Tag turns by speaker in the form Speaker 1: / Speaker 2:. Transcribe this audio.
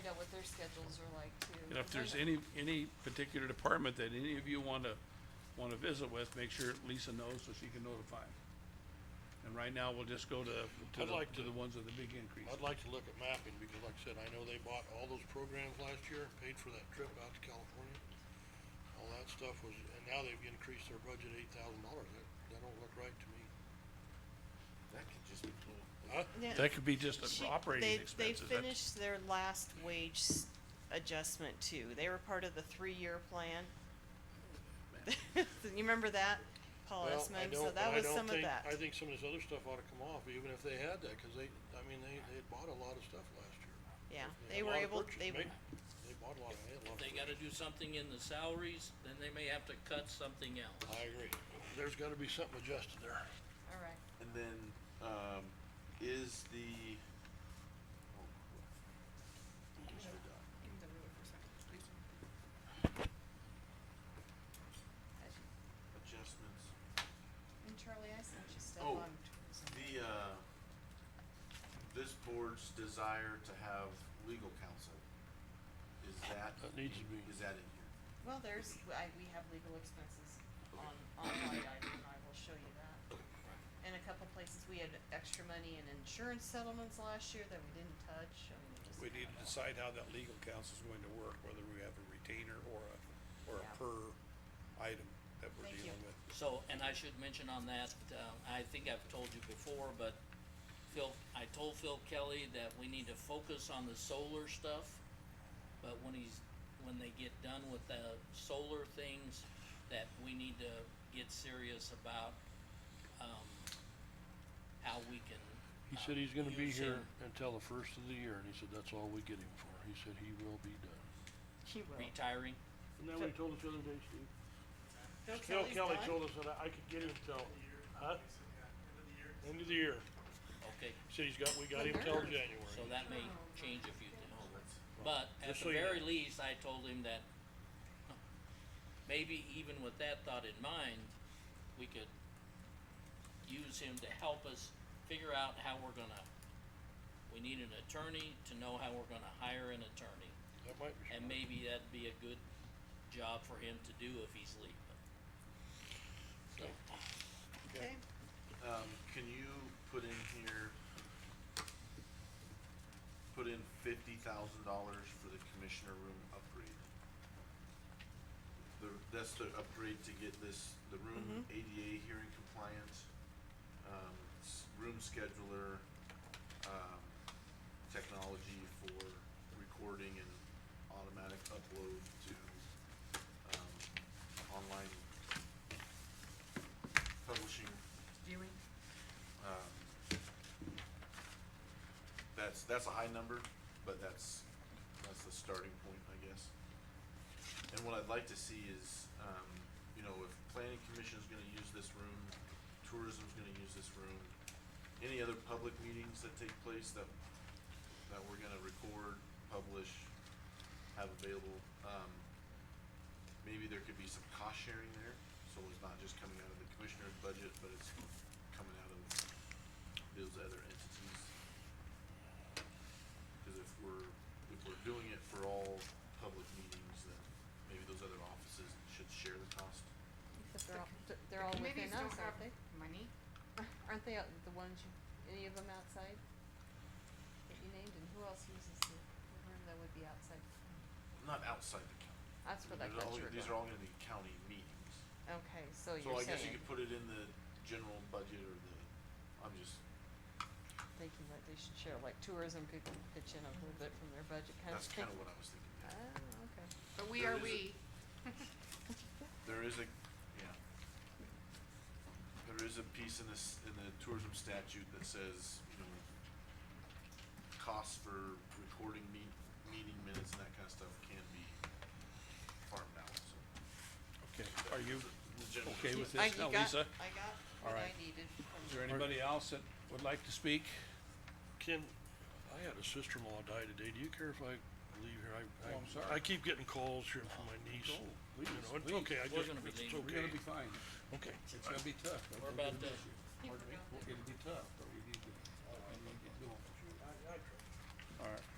Speaker 1: their schedules are like too.
Speaker 2: You know, if there's
Speaker 1: Right.
Speaker 2: any, any particular department that any of you wanna, wanna visit with, make sure Lisa knows so she can notify. And right now, we'll just go to, to
Speaker 3: I'd
Speaker 2: the,
Speaker 3: like
Speaker 2: to
Speaker 3: to-
Speaker 2: the ones with the big increase.
Speaker 3: I'd like to look at mapping, because like I said, I know they bought all those programs last year, paid for that trip out to California. All that stuff was, and now they've increased their budget eight thousand dollars, that, that don't look right to me.
Speaker 4: That could just be cool.
Speaker 3: Huh?
Speaker 5: Yeah.
Speaker 2: That could be just
Speaker 5: She-
Speaker 2: operating
Speaker 5: they-
Speaker 2: expenses.
Speaker 5: They
Speaker 2: That's-
Speaker 5: finished their last wage s- adjustment too. They were part of the three-year plan. You remember that? Paul
Speaker 3: Well, I
Speaker 5: Esmond,
Speaker 3: don't-
Speaker 5: so
Speaker 3: and
Speaker 5: Oh, that
Speaker 3: I
Speaker 5: was
Speaker 3: don't
Speaker 5: some of
Speaker 3: think-
Speaker 5: that.
Speaker 3: I think some of this other stuff ought to come off, even if they had that, cause they, I mean, they, they had bought a lot of stuff last year.
Speaker 5: Yeah,
Speaker 3: had
Speaker 5: they
Speaker 3: a
Speaker 5: were
Speaker 3: lot of
Speaker 5: able,
Speaker 3: purchase-
Speaker 5: they,
Speaker 3: ma- They bought a lot, they had a lot of
Speaker 6: If they gotta do something in the salaries, then they may have to cut something else.
Speaker 3: purchase. I agree, there's gotta be something adjusted there.
Speaker 1: All right.
Speaker 4: And then, um, is the. oh, Commissioner Dodd.
Speaker 1: Give me the ruler for a second, please.
Speaker 4: Adjustments,
Speaker 1: And Charlie, I sent you stuff
Speaker 4: Oh.
Speaker 1: on tourism.
Speaker 4: the, uh, this board's desire to have legal counsel, is that?
Speaker 3: That needs to be-
Speaker 4: Is that in here?
Speaker 1: Well, there's, I, we have legal expenses on, on line item, and I will show you that. In a couple places, we had extra money in insurance settlements last year that we didn't touch, I mean, it just.
Speaker 7: We need to decide how that legal counsel's going to work, whether we have a retainer or a, or a
Speaker 1: Yeah.
Speaker 7: per item that we're
Speaker 1: Thank you.
Speaker 7: dealing with.
Speaker 6: So, and I should mention on that, um, I think I've told you before, but Phil, I told Phil Kelly that we need to focus on the solar stuff. But when he's, when they get done with the solar things, that we need to get serious about, um, how we can.
Speaker 3: He
Speaker 6: uh,
Speaker 3: said he's gonna be
Speaker 6: use him.
Speaker 3: here until the first of the year, and he said that's all we get him for, he said he will be done.
Speaker 5: he will.
Speaker 6: Retiring,
Speaker 3: Isn't that what he told us the other day, Steve?
Speaker 5: Phil
Speaker 3: Phil
Speaker 5: Kelly's
Speaker 3: Kelly
Speaker 5: done?
Speaker 3: told us that I I could get him till, huh? End of the year.
Speaker 6: okay,
Speaker 3: He said he's got, we got him till January.
Speaker 6: so that may change a few things.
Speaker 4: Oh, that's.
Speaker 6: But at
Speaker 3: Just so
Speaker 6: the
Speaker 3: you know.
Speaker 6: very least, I told him that maybe even with that thought in mind, we could use him to help us figure out how we're gonna, we need an attorney to know how we're gonna hire an attorney.
Speaker 3: That might be.
Speaker 6: And maybe that'd be a good job for him to do if he's leaving. So,
Speaker 5: Okay,
Speaker 4: Um, can you put in here? Put in fifty thousand dollars for the commissioner room upgrade. The, that's the upgrade to get this, the room ADA hearing compliant, um, s- room scheduler, um, technology for recording and automatic upload to, um, online publishing
Speaker 1: Viewing.
Speaker 4: um, That's, that's a high number, but that's, that's the starting point, I guess. And what I'd like to see is, um, you know, if planning commission's gonna use this room, tourism's gonna use this room, any other public meetings that take place that, that we're gonna record, publish, have available, um, maybe there could be some cost sharing there, so it's not just coming out of the commissioner's budget, but it's coming out of those other entities. Cause if we're, if we're doing it for all public meetings, then maybe those other offices should share the cost.
Speaker 1: Except they're all, they're all within
Speaker 8: committees
Speaker 1: us,
Speaker 8: don't
Speaker 1: aren't
Speaker 8: have
Speaker 1: they?
Speaker 8: Money?
Speaker 1: Aren't they out- the ones, you- any of them outside? That you named, and who else uses the the room that would be outside?
Speaker 4: Not outside the county.
Speaker 1: That's where that
Speaker 4: These are all-
Speaker 1: got you
Speaker 4: These are all gonna be county meetings.
Speaker 1: Okay, so
Speaker 4: So
Speaker 1: you're
Speaker 4: I guess you
Speaker 1: saying,
Speaker 4: could put it in the general budget or the, I'm just,
Speaker 1: thinking that they should share, like tourism could pitch in a little bit from their budget kind of
Speaker 4: that's
Speaker 1: thing.
Speaker 4: kinda what I was thinking. yeah.
Speaker 1: Oh, okay.
Speaker 8: But we
Speaker 4: There
Speaker 8: are
Speaker 4: is a-
Speaker 8: we.
Speaker 4: There is a, yeah. There is a piece in this, in the tourism statute that says, you know, costs for recording meet, meeting minutes and that kind of stuff can be farmed out, so.
Speaker 2: Okay, are you,
Speaker 4: The general-
Speaker 2: Okay with
Speaker 5: I,
Speaker 2: this, now,
Speaker 5: you got,
Speaker 2: Lisa?
Speaker 5: I got
Speaker 2: All
Speaker 5: what I
Speaker 2: right.
Speaker 5: needed from
Speaker 2: Is there anybody else that would like to speak?
Speaker 3: Ken, I had a sister-in-law die today, do you care if I leave here? I,
Speaker 2: Oh,
Speaker 3: I.
Speaker 2: I'm sorry.
Speaker 3: I keep getting calls here from my niece.
Speaker 2: Go,
Speaker 3: You
Speaker 2: please,
Speaker 3: know, it's
Speaker 2: please.
Speaker 3: okay, I just,
Speaker 6: We're gonna be
Speaker 3: it's
Speaker 6: leaving.
Speaker 2: We're gonna be
Speaker 3: okay,
Speaker 2: fine.
Speaker 3: okay.
Speaker 2: It's gonna be tough. but
Speaker 6: We're
Speaker 2: gonna
Speaker 6: about
Speaker 2: miss
Speaker 6: done.
Speaker 2: you. It'll be tough, but we need to, we need to get going. All right.